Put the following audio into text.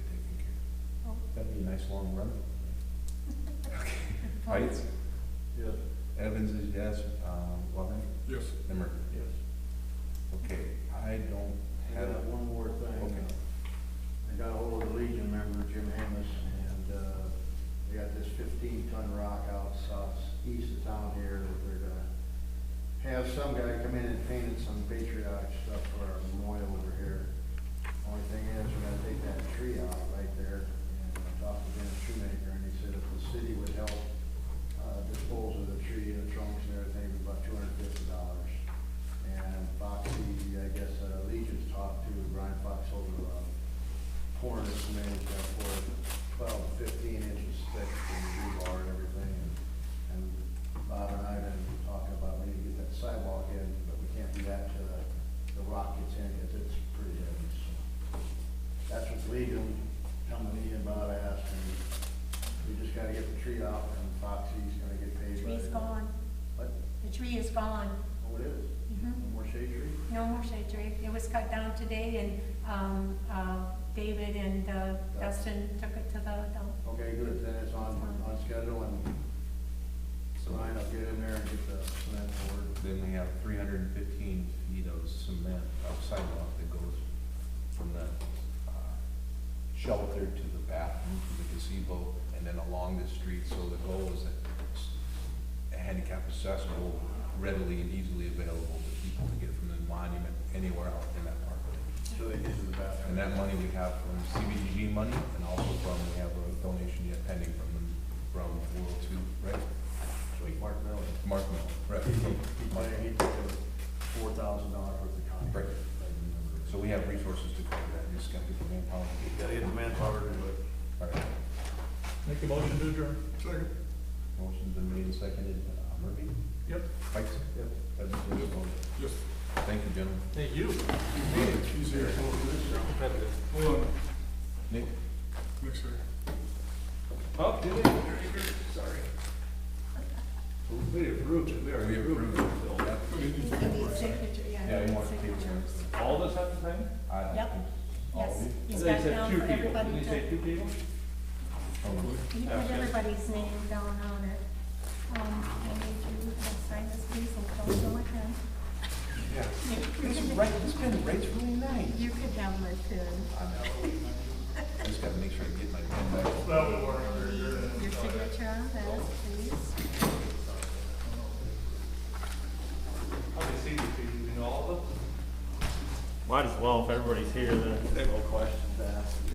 be a nice long run. Heights, Yes. Evans is yes, um, Lovin, Yes. Nimmer. Yes. Okay, I don't I have, got one more thing. Okay. I got ahold of the Legion member, Jim Amos, and, uh, they got this fifteen ton rock out south, east of town here that they're gonna have some guy come in and paint it some patriotic stuff for our memorial over here. Only thing is, we're gonna take that tree out right there, and I talked to Dennis Shoemaker, and he said if the city would help, uh, dispose of the tree and the trunks and everything, it'd be about two hundred fifty dollars. And Foxy, I guess, uh, Legion's talked to Brian Fox over, uh, pouring this cement, uh, for twelve, fifteen inches thick and rebar and everything. And- And Bob and I have been talking about maybe get that sidewalk in, but we can't do that till the, the rock gets in, cause it's pretty heavy, so. That's what Legion come to me and Bob asked, and we just gotta get the tree out, and Foxy's gonna get paid. for Tree's it. gone, What? the tree is gone. Oh, it is? Mhm. More shade tree? No more shade tree. It was cut down today and, um, uh, David and uh, Dustin took it to the dump. Okay, good, then it's on, on schedule, and so Ryan will get in there and get the cement poured. then we have three hundred and fifteen feet of cement of sidewalk that goes from the uh, shelter to the bathroom, to the gazebo, and then along the street, so the goal is that it's handicap accessible, readily and easily available to people to get from the monument anywhere out in that parkway. So they get to the And bathroom. that money we have from CBDG money, and also from, we have a donation yet pending from, the- from World Two, right? Sweet Mark Miller. Mark Mill, right? He, from he Mark. paid, he took four thousand dollars worth of Right. contract. So we have resources to cover that, just gotta get the manpower. Gotta get the manpower to do it. All right, Make a motion to adjourn. Second. motion's been made and seconded, Uh, Murphy? Yep. Pikes? Yep. Evans, yes, vote. Yes. Thank you, gentlemen. Hey, you. He's here. Hold on, Nick? mixer. Oh, did it? Sorry. We approved it, we already We approved approved it. it. He needs signature, yeah. Yeah, he wants to keep signatures. it. All of us have to sign? I don't Yep. think- all of Yes, you? he's Oh. They got said down two for people. everybody Did to, they say two people? Hold on. he put everybody's name down on it. Um, I need you to sign this please and don't go again. Yeah. It's right, it's been, rate's really nice. You could have my pen, I know. I Just gotta make sure I get my pen back. your signature on this, please. How many seats do you, you know all of them? Might as well, if everybody's here, then. No questions asked.